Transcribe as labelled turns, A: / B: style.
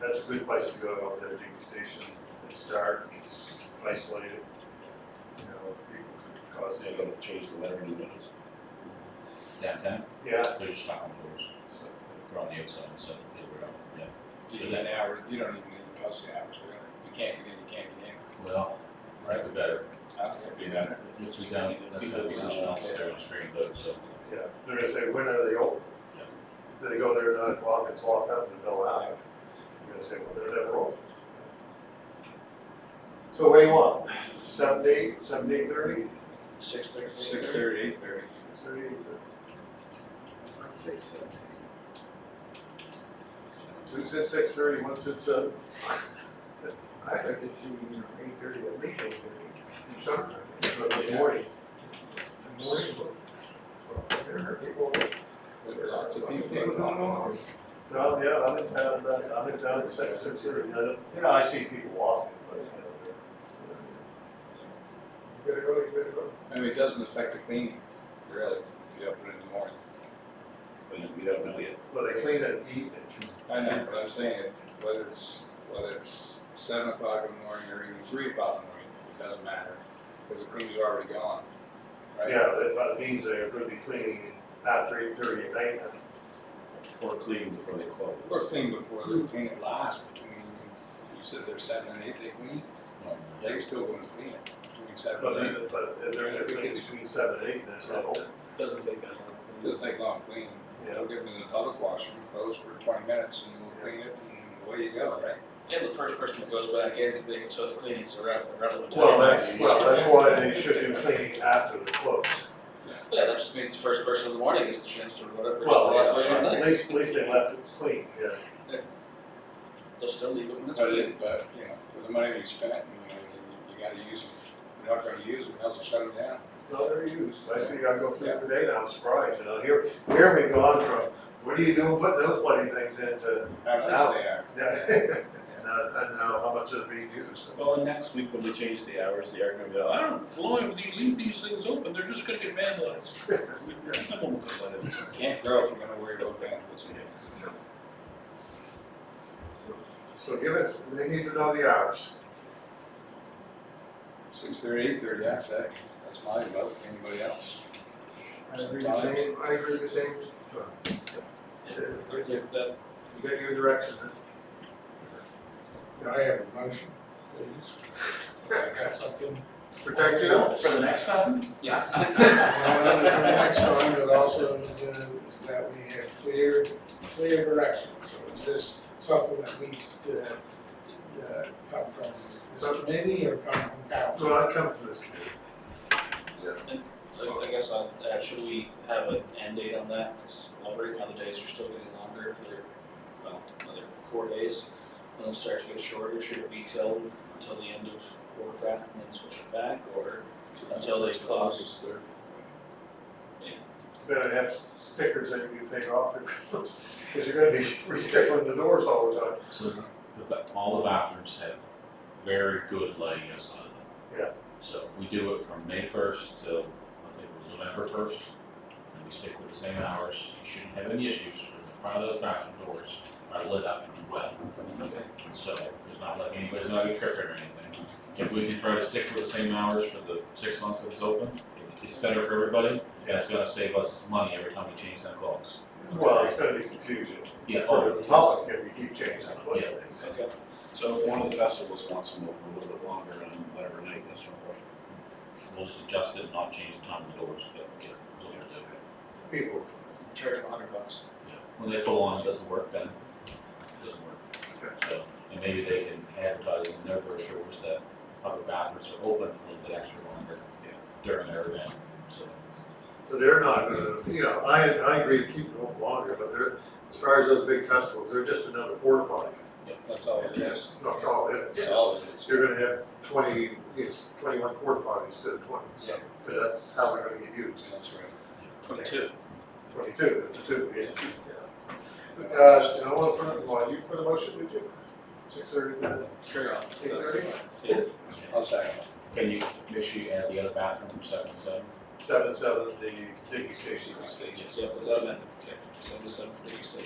A: that's a good place to go out there, Digby Station. It's dark, it's isolated. You know, people could cause
B: They're
A: any,
B: gonna change the lettering windows.
C: downtown,
A: yeah.
C: they're just not on doors,
A: so,
C: they're on the outside, so they were out, yeah.
D: You need an hour, you don't even need to post the hours, really. You can't get in, you can't get in.
C: Well, right, we better,
D: I don't think
C: we
D: it'd be
C: better,
D: better.
C: which is down, that's gonna be something else there on Spring Road, so.
A: Yeah, they're gonna say, when are they open?
C: Yeah.
A: Do they go there at nine o'clock, it's locked up and they'll out? You're gonna say, well, they're never open. So what do you want? Seven to eight, seven to eight thirty?
B: Six thirty.
D: Six thirty, eight thirty.
A: Six thirty, eight thirty.
B: I'd say seven.
A: Two said six thirty, one said seven.
E: I heard it's even eight thirty, at least eight thirty, sometimes,
A: But the morning,
E: the morning book. There are people.
D: There are lots of people that don't know.
A: no, yeah, I'm in town, but I'm in town at six, six thirty, I don't, yeah, I see people walking, but, you know,
E: You better go, you better go.
D: I mean, it doesn't affect the cleaning, really, if you open it in the morning.
B: We don't know yet.
A: well, they clean at eight,
D: I know, but I'm saying, whether it's, whether it's seven o'clock in the morning or even three o'clock in the morning, it doesn't matter, because the cleaning's already gone. right?
A: yeah, that, but it means they're gonna be cleaning after eight thirty at night, now.
B: Or clean before they close.
C: Oh,
D: Or clean before the clean it lasts between, you said there's seven and eight they clean, they're still gonna clean it between seven
A: but
D: and
A: then,
D: eight.
A: but if they're gonna clean between seven and eight, then it's not open.
B: Doesn't take that
D: It Doesn't take long cleaning,
A: Yeah.
D: they'll get it in the public washroom, close for twenty minutes and we'll clean it and away you go, right?
F: And the first person that goes back in, they can show the cleanings around, around the.
A: Well, that's, well, that's why they should do cleaning after the close.
F: Yeah, that just means the first person in the morning gets the chance to run up, versus the
A: Well,
F: last person at
A: at
F: night.
A: least, at least they left it clean, yeah.
F: They'll still leave it when it's.
D: But it, but, you know, for the money we spent, you know, you- you gotta use them, you're not gonna use them, how's it shut them down?
A: No, they're used. I see, I go through every day now, I'm surprised, you know, here, here we've gone from, what are you doing, putting those bloody things into,
D: How nice they are.
A: yeah, and, uh, and now how much is being used.
B: Well, and next week when we change the hours, they are gonna be like, I don't, know, as long as you leave these things open, they're just gonna get vandalized. Someone will complain.
D: Can't grow if you're gonna worry about vandalism.
A: So give us, they need to know the hours.
D: Six thirty, eight thirty, I say, that's my vote, anybody else?
E: I agree the same, I agree the same.
F: Yeah, that-
A: You got your direction, huh?
E: I have a motion.
F: that's up to them.
A: protect you.
B: For the next time?
F: Yeah.
E: And Uh, the next one, but also uh, that we have clear, clear direction. So is this something that needs to uh, come from this committee or come from council?
A: Well, I come from this community.
F: I I guess, I'll- uh, should we have an end date on that? Because right now the days are still getting longer for, well, another four days. And it'll start to get shorter, should it be till, until the end of quarter five and then switch it back, or Until they close.
A: Better have stickers that you can take off, because you're gonna be re-stickling the doors all the time.
C: So the, ba- all the bathrooms have very good lighting outside of them.
A: Yeah.
C: So if we do it from May first till, I think it was November first, and we stick with the same hours, you shouldn't have any issues because the front of those bathroom doors are lit up and well.
F: Okay.
C: So there's not like anybody's not gonna trip or anything. If we can try to stick with the same hours for the six months that it's open, it's better for everybody. And it's gonna save us money every time we change them clocks.
A: Well, it's gonna be confusing
C: Yeah.
A: for the public if you keep changing the play things.
F: okay.
B: So if one of the festivals wants them open a little bit longer on whatever night, that's no problem.
C: We'll just adjust it and not change the time of the doors, but yeah, we'll do it.
A: People,
F: Charge them a hundred bucks.
C: Yeah, when they pull on, it doesn't work then, it doesn't work.
A: Okay.
C: So, and maybe they can advertise in their brochures that public bathrooms are open a little bit extra longer during their event, so.
A: So they're not gonna, you know, I, I agree to keep it open longer, but they're, as far as those big festivals, they're just another porta potty.
D: That's all it is.
A: That's all it is.
D: That's all it is.
A: So you're gonna have twenty, it's twenty-one porta potties instead of twenty, so, because that's how they're gonna get used,
D: That's right.
F: Twenty-two.
A: twenty-two, two, yeah. yeah. Uh, so I wanna put, it- well, you put a motion, did you? Six thirty,
F: Sure. I'll-
A: eight thirty,
D: I'll say,
C: Can you make sure you add the other bathroom from seven to seven?
A: seven, seven, the digging station.
F: Yeah, without amendment, okay, send this up to the state.